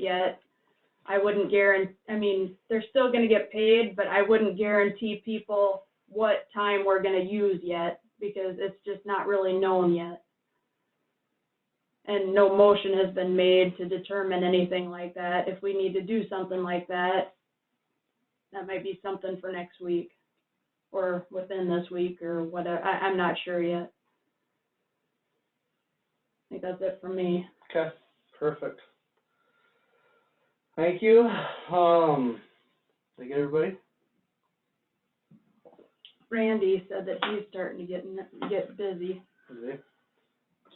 yet. I wouldn't guarantee, I mean, they're still gonna get paid, but I wouldn't guarantee people what time we're gonna use yet, because it's just not really known yet. And no motion has been made to determine anything like that. If we need to do something like that, that might be something for next week, or within this week, or whatever, I, I'm not sure yet. I think that's it for me. Okay, perfect. Thank you. Um, did I get everybody? Randy said that he's starting to get, n- get busy. Okay.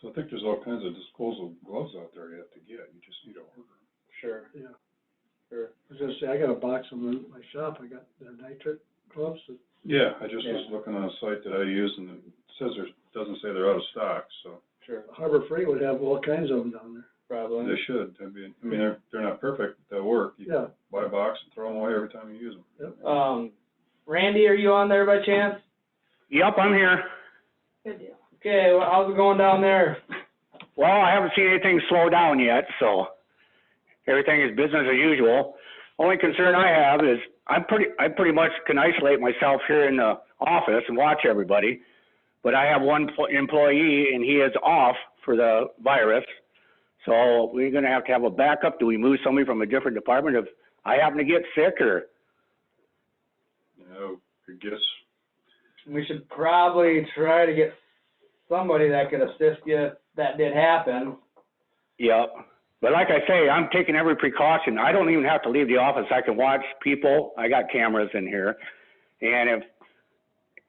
So I think there's all kinds of disposal gloves out there you have to get, you just need to order. them. Sure. Yeah, I Sure. was gonna say, I got a box of them in my shop, I got the nitrate gloves, that- Yeah, I just was Yeah. looking on a site that I use and it says there's, doesn't say they're out of stock, so Sure. Harbor Freight would have all kinds of them down there. Probably. they should, I mean, I mean, they're, they're not perfect, but they'll work. You Yeah, buy a box and throw them away every time you use them. Um, Randy, are you on there by chance? Yep, I'm here. Good deal. Okay, well, how's it going down there? Well, I haven't seen anything slow down yet, so everything is business as usual. Only concern I have is I'm pretty, I pretty much can isolate myself here in the office and watch everybody. But I have one pl- employee and he is off for the virus. So we're gonna have to have a backup. Do we move somebody from a different department if I happen to get sick or? You know, I guess, We should probably try to get somebody that could assist you if that did happen. Yep. But like I say, I'm taking every precaution. I don't even have to leave the office. I can watch people. I got cameras in here. And if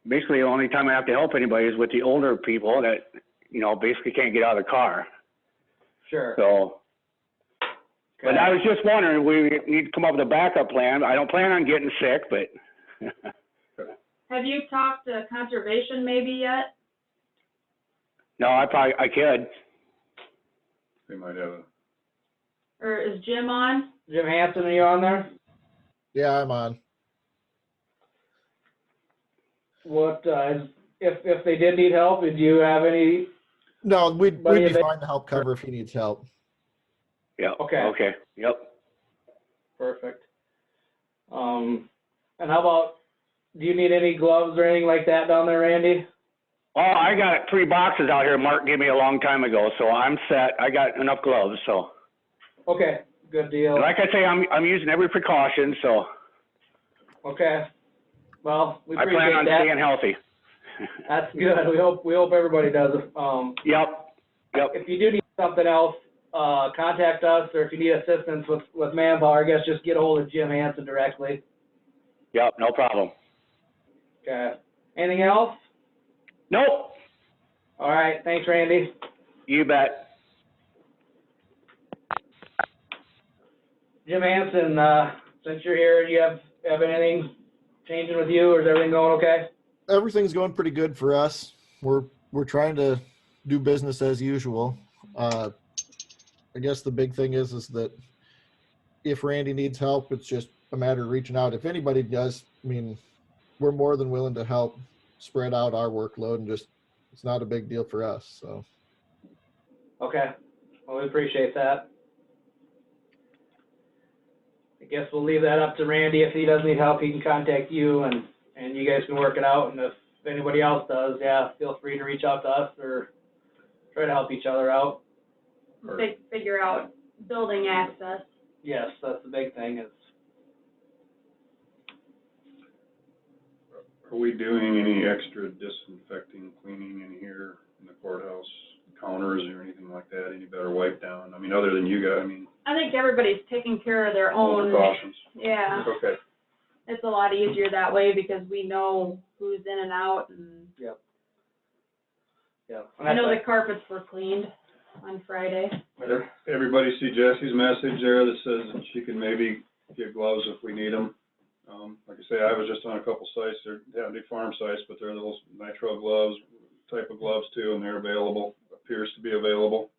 basically the only time I have to help anybody is with the older people that, you know, basically can't get out of the car. Sure. So, but Okay. I was just wondering, we need to come up with a backup plan. I don't plan on getting sick, but Have you talked to conservation maybe yet? no, I probably, I could. they might have a, Or is Jim on? Jim Hanson, are you on there? Yeah, I'm on. What, uh, is- if, if they did need help, did you have any? No, we'd, Buddy, we'd if be it- fine to help cover if he needs help. Yeah. Okay. Okay. Yep. Perfect. Um, and how about, do you need any gloves or anything like that down there, Randy? Oh, I got three boxes out here Mark gave me a long time ago, so I'm set. I got enough gloves, so. Okay, good deal. Like I say, I'm, I'm using every precaution, so Okay. Well, we I plan appreciate on that. staying healthy. That's good. We hope, we hope everybody does. Um, Yep, yep, if you do need something else, uh, contact us, or if you need assistance with, with manpower, I guess just get hold of Jim Hanson directly. yep, no problem. Okay. Anything else? Nope, All right, thanks, Randy. you bet. Jim Hanson, uh, since you're here, you have, have anything changing with you, or is everything going okay? Everything's going pretty good for us. We're we're trying to do business as usual. Uh, I guess the big thing is is that if Randy needs help, it's just a matter of reaching out. If anybody does, I mean, we're more than willing to help spread out our workload and just it's not a big deal for us. So Okay, well, we appreciate that. I guess we'll leave that up to Randy. If he does need help, he can contact you and, and you guys can work it out. And if anybody else does, yeah, feel free to reach out to us or try to help each other out. or They figure out building access. Yes, that's the big thing is, are we doing any extra disinfecting, cleaning in here in the courthouse counters or anything like that? Any better wipe down? I mean, other than you guys, I mean, I think everybody's taking care of their Oh all own. precautions. Yeah, Okay, it's a lot easier that way because we know who's in and out and yeah. And I know that's- the carpets were cleaned on Friday. Ev- Everybody see Jesse's message there that says that she can maybe get gloves if we need them. Um, like I say, I was just on a couple sites, they're, they have big farm sites, but they're those nitrile gloves, type of gloves too, and they're available, appears to be available.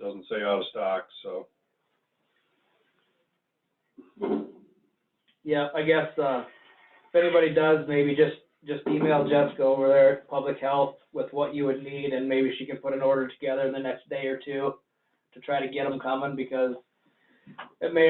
Doesn't say out of stock, so. Yeah, I guess, uh, if anybody does, maybe just, just email Jessica over there at Public Health with what you would need, and maybe she can put an order together in the next day or two to try to get them coming, because it may